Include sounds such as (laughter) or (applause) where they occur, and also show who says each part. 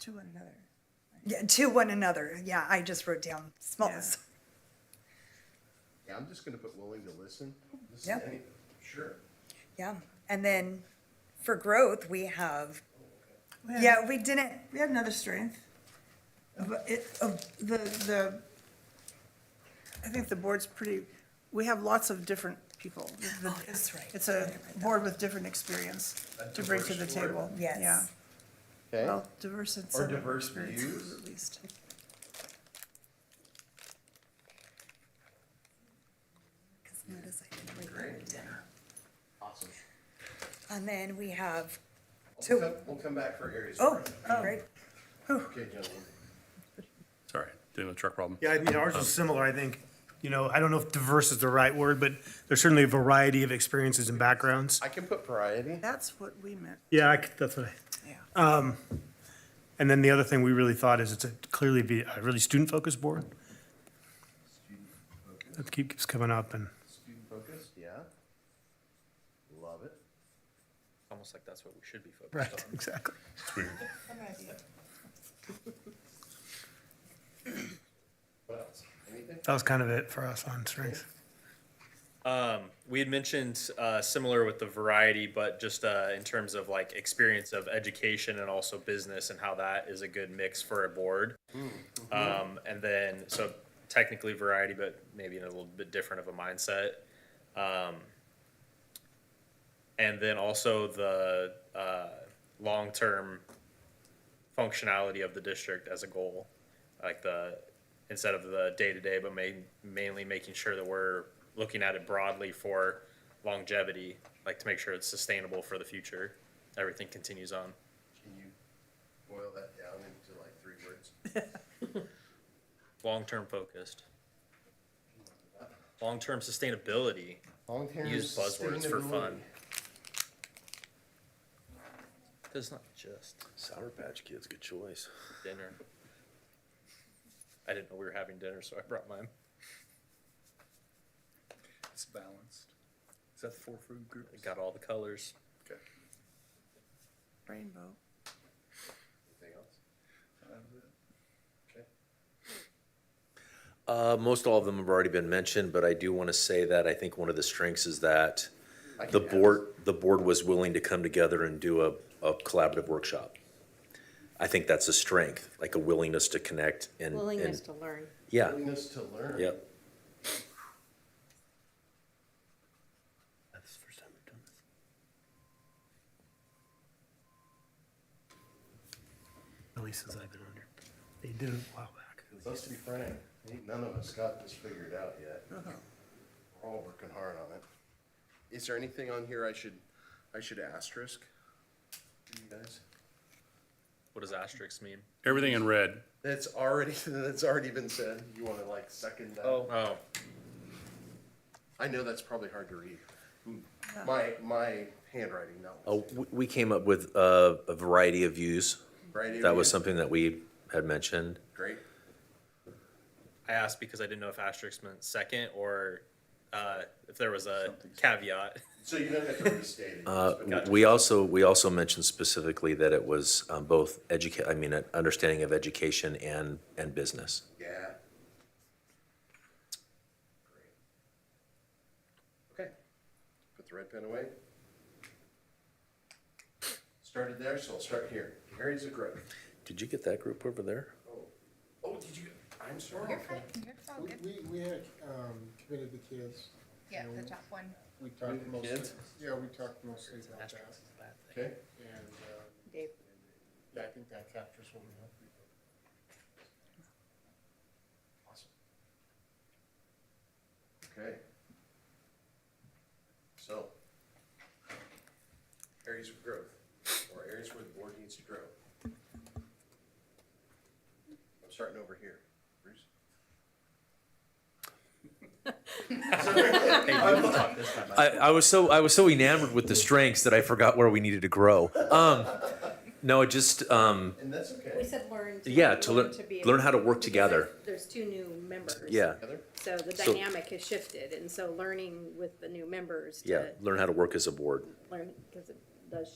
Speaker 1: to another.
Speaker 2: Yeah, to one another. Yeah, I just wrote down small.
Speaker 1: Yeah.
Speaker 3: Yeah, I'm just gonna put willing to listen. This is
Speaker 2: Yep.
Speaker 3: any- Sure.
Speaker 2: yeah. And then for growth, we have,
Speaker 1: We had-
Speaker 2: yeah, we didn't,
Speaker 1: We had another strength. But it, of the, the, I think the board's pretty, we have lots of different people. The-
Speaker 2: Oh, that's right.
Speaker 1: It's a board with different experience
Speaker 3: A
Speaker 1: to bring to the
Speaker 3: diverse board.
Speaker 1: table.
Speaker 2: Yes.
Speaker 1: Yeah.
Speaker 3: Okay,
Speaker 1: Well, diverse in
Speaker 3: Or
Speaker 1: some
Speaker 3: diverse
Speaker 1: experiences,
Speaker 3: views.
Speaker 1: At least.
Speaker 2: notice I didn't write that
Speaker 3: Great.
Speaker 2: down.
Speaker 3: awesome.
Speaker 2: And then we have,
Speaker 3: We'll
Speaker 2: Two.
Speaker 3: come, we'll come back for areas. of
Speaker 2: oh,
Speaker 3: growth.
Speaker 2: great.
Speaker 3: Okay, gentlemen.
Speaker 4: Sorry, doing a truck problem.
Speaker 5: Yeah, I mean, ours is similar, I think. You know, I don't know if diverse is the right word, but there's certainly a variety of experiences and backgrounds.
Speaker 3: I can put variety.
Speaker 1: That's what we meant,
Speaker 5: Yeah, I c that's what I, um,
Speaker 1: yeah.
Speaker 5: and then the other thing we really thought is it's a clearly be a really student-focused board.
Speaker 3: Student focus,
Speaker 5: That keep- keeps coming up and,
Speaker 3: student focus, yeah. Love it.
Speaker 6: Almost like that's what we should be focused
Speaker 5: right, exactly.
Speaker 3: What else? Anything?
Speaker 5: That was kind of it for us on strengths.
Speaker 6: We had mentioned uh, similar with the variety, but just uh, in terms of like experience of education and also business and how that is a good mix for a board. Um, and then, so technically variety, but maybe in a little bit different of a mindset. Um, and then also the uh, long term functionality of the district as a goal, like the instead of the day to day, but main, mainly making sure that we're looking at it broadly for longevity, like to make sure it's sustainable for the future. Everything continues on.
Speaker 3: Can you boil that down into like three words?
Speaker 6: Long term focused. Long term sustainability.
Speaker 3: Long-term
Speaker 6: Use buzzwords for fun.
Speaker 3: sustainability.
Speaker 6: That's not just
Speaker 7: Sour Patch Kids, good choice.
Speaker 6: dinner. I didn't know we were having dinner, so I brought mine.
Speaker 7: It's balanced. Is that the four food group?
Speaker 6: It got all the colors.
Speaker 7: Okay.
Speaker 1: Rainbow.
Speaker 3: Anything else? Okay.
Speaker 8: Uh, most all of them have already been mentioned, but I do want to say that I think one of the strengths is that
Speaker 3: I
Speaker 8: the
Speaker 3: can add
Speaker 8: board, the board was willing to come together and do a, a collaborative workshop. I think that's a strength, like a willingness to connect and,
Speaker 9: Willingness
Speaker 8: and,
Speaker 9: to learn.
Speaker 8: yeah,
Speaker 3: Willingness to learn.
Speaker 8: yep.
Speaker 7: That's the first time we've done this.
Speaker 5: At least since I've been under. They did it a while back.
Speaker 3: Let's be frank, ain't none of us got this figured out yet. We're all working hard on it. Is there anything on here I should, I should asterisk? You guys?
Speaker 6: What does asterisk mean?
Speaker 4: Everything in red.
Speaker 3: That's already, (laughs) that's already been said. You wanna like second that?
Speaker 6: Oh. Oh.
Speaker 3: I know that's probably hard to read. My, my handwriting, not.
Speaker 8: Oh, we, we came up with a, a variety of views.
Speaker 3: Variety of
Speaker 8: That was
Speaker 3: views.
Speaker 8: something that we had mentioned.
Speaker 3: Great.
Speaker 6: I asked because I didn't know if asterisk meant second or uh, if there was a caveat.
Speaker 3: So you don't have to restate it.
Speaker 8: Uh,
Speaker 3: just because-
Speaker 8: We also, we also mentioned specifically that it was, um, both educa, I mean, an understanding of education and, and business.
Speaker 3: Yeah. Okay, put the red pen away. Started there, so I'll start here. Areas of growth.
Speaker 8: Did you get that group over there?
Speaker 3: Oh, did you, I'm sorry.
Speaker 10: We, we- we had um, committed the kids.
Speaker 9: Yeah, the top one.
Speaker 10: We talked mostly,
Speaker 3: kids?
Speaker 10: yeah, we talked mostly about that.
Speaker 3: Okay,
Speaker 10: And um,
Speaker 9: Dave,
Speaker 10: yeah, I think that captures what we hope we do.
Speaker 3: awesome. Okay. So, areas of growth, or areas where the board needs to grow. I'm starting over here. Bruce?
Speaker 8: I, I was so I was so enamored with the strengths that I forgot where we neneeded to grow. Um, no, it just um,
Speaker 3: And that's okay.
Speaker 9: we said learn.
Speaker 8: Yeah, to learn-
Speaker 9: be
Speaker 8: learn
Speaker 9: able-
Speaker 8: how to work
Speaker 9: because
Speaker 8: together.
Speaker 9: there's- There's two new members.
Speaker 8: yeah,
Speaker 3: Heather?
Speaker 9: So the
Speaker 8: So-
Speaker 9: dynamic has shifted, and so learning with the new members
Speaker 8: yeah.
Speaker 9: to
Speaker 8: Learn how to work as a board.
Speaker 9: learn, because it does